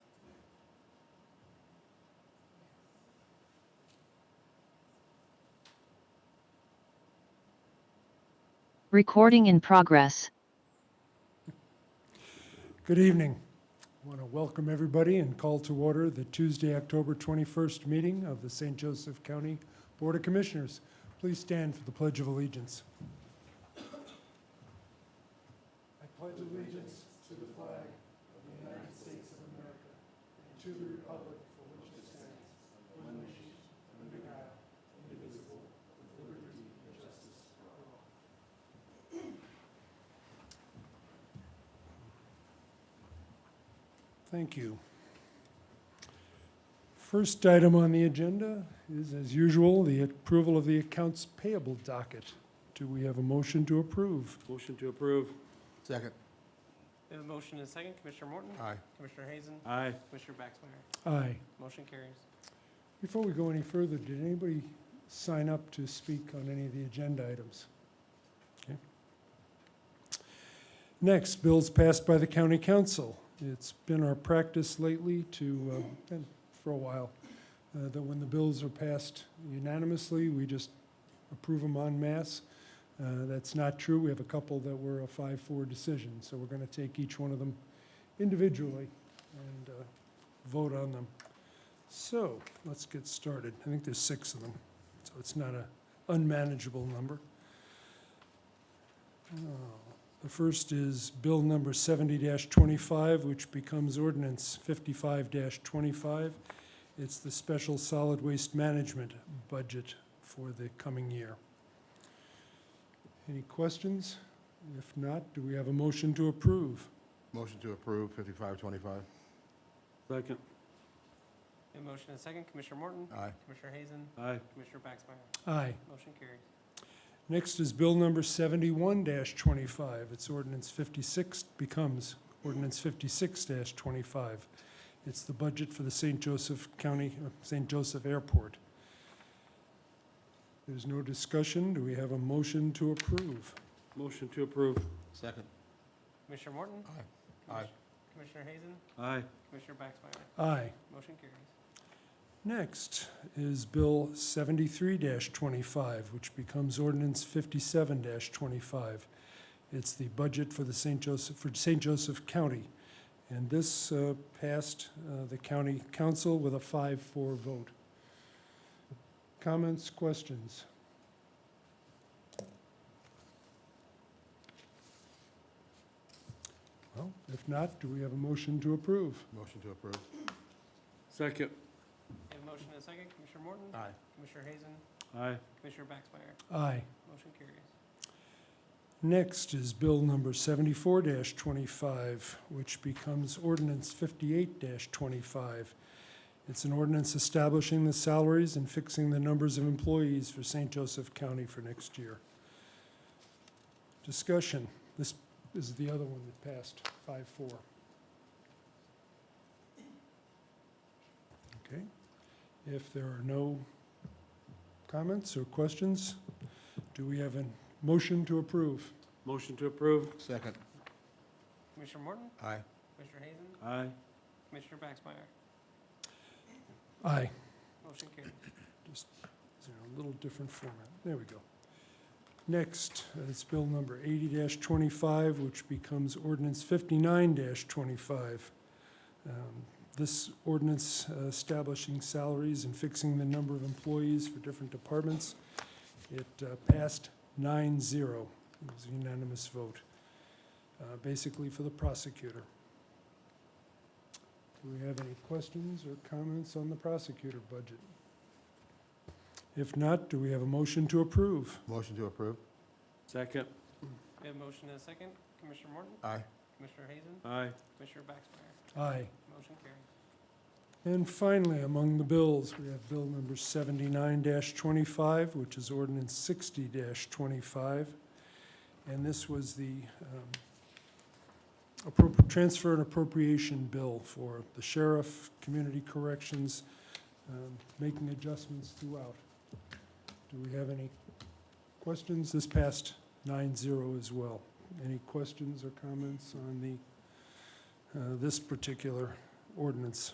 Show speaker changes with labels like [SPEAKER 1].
[SPEAKER 1] Recording in progress.
[SPEAKER 2] Good evening. I want to welcome everybody and call to order the Tuesday, October 21st meeting of the St. Joseph County Board of Commissioners. Please stand for the Pledge of Allegiance. Thank you. First item on the agenda is, as usual, the approval of the accounts payable docket. Do we have a motion to approve?
[SPEAKER 3] Motion to approve.
[SPEAKER 4] Second.
[SPEAKER 5] We have a motion and a second. Commissioner Morton?
[SPEAKER 4] Aye.
[SPEAKER 5] Commissioner Hazen?
[SPEAKER 3] Aye.
[SPEAKER 5] Commissioner Baxmeyer?
[SPEAKER 2] Aye.
[SPEAKER 5] Motion carries.
[SPEAKER 2] Before we go any further, did anybody sign up to speak on any of the agenda items? Okay. Next, bills passed by the county council. It's been our practice lately to, uh, and for a while, uh, that when the bills are passed unanimously, we just approve them en masse. Uh, That's not true. We have a couple that were a 5-4 decision, so we're going to take each one of them individually and uh, vote on them. So, let's get started. I think there's six of them, so it's not an unmanageable number. Uh, The first is Bill Number 70-25, which becomes Ordinance 55-25. It's the Special Solid Waste Management Budget for the coming year. Any questions? If not, do we have a motion to approve?
[SPEAKER 4] Motion to approve fifty-five twenty-five.
[SPEAKER 3] Second.
[SPEAKER 5] We have a motion and a second. Commissioner Morton?
[SPEAKER 4] Aye.
[SPEAKER 5] Commissioner Hazen?
[SPEAKER 3] Aye.
[SPEAKER 5] Commissioner Baxmeyer?
[SPEAKER 2] Aye.
[SPEAKER 5] Motion carries.
[SPEAKER 2] Next is Bill number seventy-one twenty-five. It's ordinance fifty-six, becomes ordinance fifty-six twenty-five. It's the budget for the St. Joseph County, uh, St. Joseph Airport. There's no discussion. Do we have a motion to approve?
[SPEAKER 3] Motion to approve.
[SPEAKER 4] Second.
[SPEAKER 5] Commissioner Morton?
[SPEAKER 4] Aye.
[SPEAKER 5] Commis-
[SPEAKER 4] Aye.
[SPEAKER 5] Commissioner Hazen?
[SPEAKER 3] Aye.
[SPEAKER 5] Commissioner Baxmeyer?
[SPEAKER 2] Aye.
[SPEAKER 5] Motion carries.
[SPEAKER 2] Next is Bill seventy-three twenty-five, which becomes ordinance fifty-seven twenty-five. It's the budget for the St. Joseph, for St. Joseph County. And this uh, passed uh, the county council with a five-four vote. Comments, questions? Well, if not, do we have a motion to approve?
[SPEAKER 4] Motion to approve.
[SPEAKER 3] Second.
[SPEAKER 5] We have a motion and a second. Commissioner Morton?
[SPEAKER 4] Aye.
[SPEAKER 5] Commissioner Hazen?
[SPEAKER 3] Aye.
[SPEAKER 5] Commissioner Baxmeyer?
[SPEAKER 2] Aye.
[SPEAKER 5] Motion carries.
[SPEAKER 2] Next is Bill number seventy-four twenty-five, which becomes ordinance fifty-eight twenty-five. It's an ordinance establishing the salaries and fixing the numbers of employees for St. Joseph County for next year. Discussion. This is the other one that passed, five-four. Okay. If there are no comments or questions, do we have a motion to approve?
[SPEAKER 3] Motion to approve.
[SPEAKER 4] Second.
[SPEAKER 5] Commissioner Morton?
[SPEAKER 4] Aye.
[SPEAKER 5] Commissioner Hazen?
[SPEAKER 3] Aye.
[SPEAKER 5] Commissioner Baxmeyer?
[SPEAKER 2] Aye.
[SPEAKER 5] Motion carries.
[SPEAKER 2] Is there a little different format? There we go. Next, uh, it's bill number eighty twenty-five, which becomes ordinance fifty-nine twenty-five. Um, This ordinance uh, establishing salaries and fixing the number of employees for different departments. It uh, passed 9-0. It was a unanimous vote, uh, basically for the prosecutor. Do we have any questions or comments on the prosecutor budget? If not, do we have a motion to approve?
[SPEAKER 4] Motion to approve.
[SPEAKER 3] Second.
[SPEAKER 5] We have a motion and a second. Commissioner Morton?
[SPEAKER 4] Aye.
[SPEAKER 5] Commissioner Hazen?
[SPEAKER 3] Aye.
[SPEAKER 5] Commissioner Baxmeyer?
[SPEAKER 2] Aye.
[SPEAKER 5] Motion carries.
[SPEAKER 2] And finally, among the bills, we have Bill number seventy-nine twenty-five, which is ordinance sixty twenty-five. And this was the um, appro- transfer and appropriation bill for the sheriff, community corrections, um, making adjustments throughout. Do we have any questions? This passed 9-0 as well. Any questions or comments on the, uh, this particular ordinance?